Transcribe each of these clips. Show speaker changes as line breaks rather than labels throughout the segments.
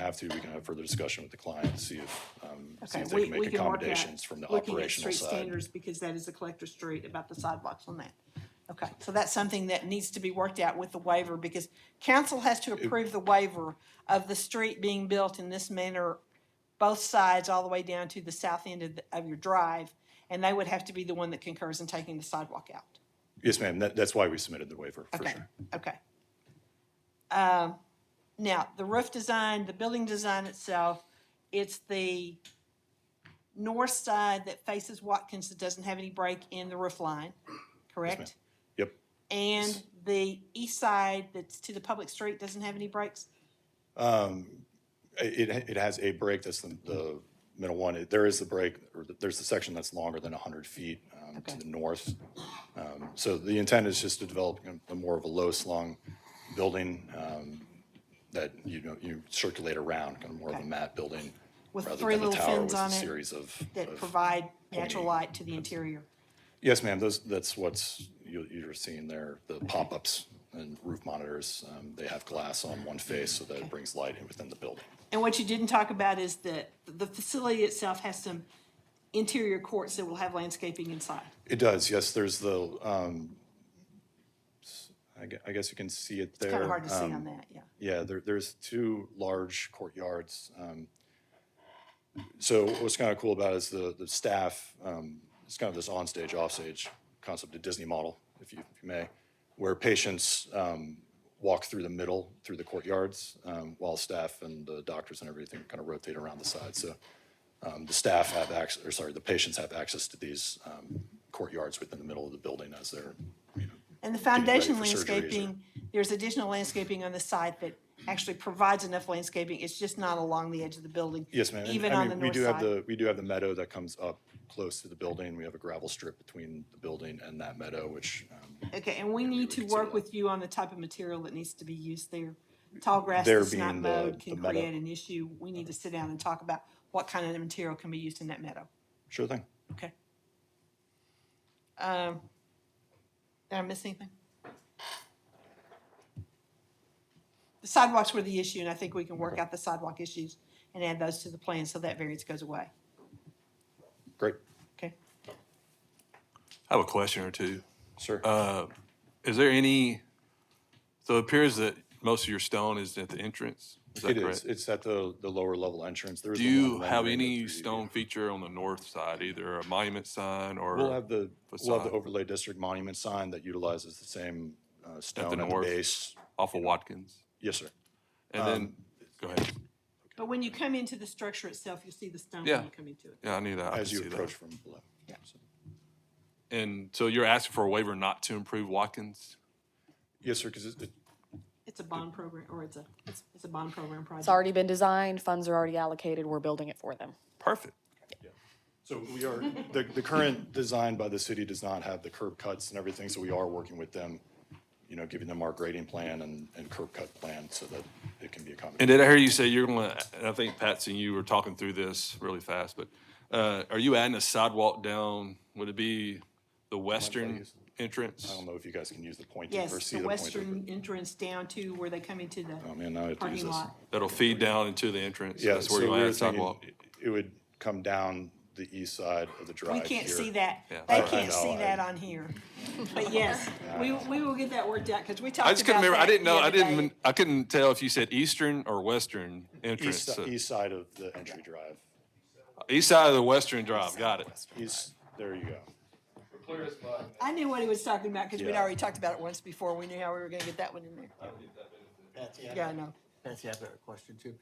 have to, we can have further discussion with the client, see if, um, see
Okay,
if
we-
they can
we
make
can work out
accommodations from the
looking at
operational
street
side.
standards, because that is a collector street, about the sidewalks on that. Okay, so that's something that needs to be worked out with the waiver, because council has to approve the waiver of the street being built in this manner, both sides, all the way down to the south end of, the- of your drive, and they would have to be the one that concurs in taking the sidewalk out.
Yes, ma'am, that, that's why we submitted the waiver, for
Okay,
sure.
okay. Um, Now, the roof design, the building design itself, it's the north side that faces Watkins that doesn't have any break in the roof line, correct?
Yep,
And the east side that's to the public street doesn't have any breaks?
it, it- it has a break, that's the, the middle one, It- there is the break, or th- there's the section that's longer than hundred feet, um, to
Okay.
the north. Um, So the intent is just to develop a more of a low slung building, um, that, you know, you circulate around, kind of more of a
Okay.
mat building.
With
rather
three
than a
little
tower
fins
with a
on it
Series of.
That
of-
provide natural
pointy-
light to the interior?
Yes, ma'am, those, that's what's, you, you're seeing there, the pop-ups and roof monitors. Um, they have glass on one face so that it brings light in within the building.
And what you didn't talk about is that the facility itself has some interior courts that will have landscaping inside.
It does, yes, there's the, um, s- I gue- I guess you can see it there.
Kind of hard to see
Um,
on that, yeah.
Yeah, there, there's two large courtyards. um, So what's kind of cool about it is the, the staff, um, it's kind of this onstage, offstage concept, a Disney model, if you, if you may, where patients um, walk through the middle, through the courtyards, um, while staff and the doctors and everything kind of rotate around the side. So um, the staff have access, or sorry, the patients have access to these um, courtyards within the middle of the building as they're, you know,
And the
getting ready
foundation
for surgeries or-
landscaping, there's additional landscaping on the site that actually provides enough landscaping, it's just not along the edge of the building.
Yes, ma'am. And,
Even
I
on the
mean, we
north
do have
side.
the We do have the meadow that comes up close to the building. We have a gravel strip between the building and that meadow, which, um,
Okay, and we need to
consider
work
that.
with you on the type of material that needs to be used there. Tall grass
There
that's not
being the-
mowed
the
can
meadow.
create an issue, we need to sit down and talk about what kind of material can be used in that meadow,
sure thing.
okay? Um, Did I miss anything? The sidewalks were the issue, and I think we can work out the sidewalk issues and add those to the plan, so that variance goes away.
Great,
Okay.
I have a question or two.
sir.
Uh, Is there any, so it appears that most of your stone is at the entrance? Is that
It is.
correct?
It's at the, the lower level entrance. There is
Do
the
you
one
have
rendering
any
that's 3D.
stone feature on the north side, either a monument sign or?
We'll have the, we'll have
facade?
the overlay district monument sign that utilizes the same uh, stone at the
north?
base.
Off of Watkins?
Yes, sir.
And
Um,
then, go ahead.
But when you come into the structure itself, you'll see the stone when
Yeah.
you come into it.
Yeah, I knew that. I
As
could
you
see that.
approach from below.
And so you're asking for a waiver not to improve Watkins?
Yes, sir, because it,
It's a bond program, or it's a, it's, it's a bond program project.
It's already been designed, funds are already allocated, we're building it for them.
Perfect.
So we are, the, the current design by the city does not have the curb cuts and everything, so we are working with them, you know, giving them our grading plan and, and curb cut plan so that it can be
And
accommodated.
did I hear you say you're gonna, and I think Patsy and you were talking through this really fast, but, uh, are you adding a sidewalk down? Would it be the western
use-
entrance?
I don't know if you guys can use the pointer or
Yes,
see
the
the pointer.
western entrance down to where they come into the
Oh, man, now I have to use
parking
this.
lot.
That'll feed down into the entrance.
Yeah,
That's where
so
you
we
want to
were
add
thinking
sidewalk.
It would come down the east side of the drive
We
here.
can't see that,
Yeah.
they
I- I
can't
know,
see
I-
that on here. But yes, we, we will get that worked out, because we talked about
I just couldn't remember. I
that
didn't know.
the
I
other
didn't.
day.
even- I couldn't tell if you said eastern or western entrance.
East,
so-
east side of the entry drive.
East side of the western drive. Got it.
East, there you go.
I knew what he was talking about, because we'd
Yeah.
already talked about it once before, we knew how we were gonna get that one in there.
Betsy, I
Yeah, I
have-
know.
Betsy, I've got a question too.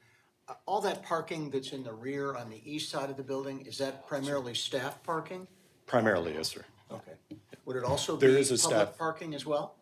Uh, All that parking that's in the rear on the east side of the building, is that primarily staff parking?
Primarily, yes, sir.
Okay. Would it also be
There is a
public
staff-
parking as well?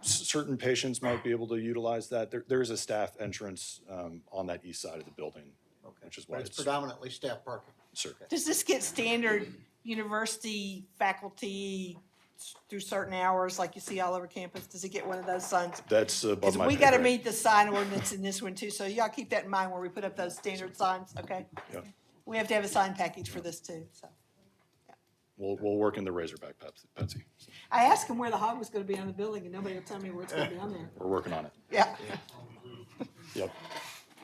certain patients might be able to utilize that. There, there is a staff entrance um, on that east side of the building,
Okay.
which is
But
why
it's
it's,
predominantly staff parking.
sir.
Does this get standard university faculty s- through certain hours, like you see all over campus? Does it get one of those signs?
That's above
Because
my
we
pay
gotta
grade.
meet the sign ordinance in this one too, so y'all keep that in mind where we put up those standard signs, okay?
Yeah.
We have to have a sign package for this too, so.
We'll, we'll work in the Razorback, Pepsi- Betsy.
I asked him where the hog was gonna be on the building, and nobody will tell me where it's gonna be on there.
We're working on it.
Yeah,
Yep.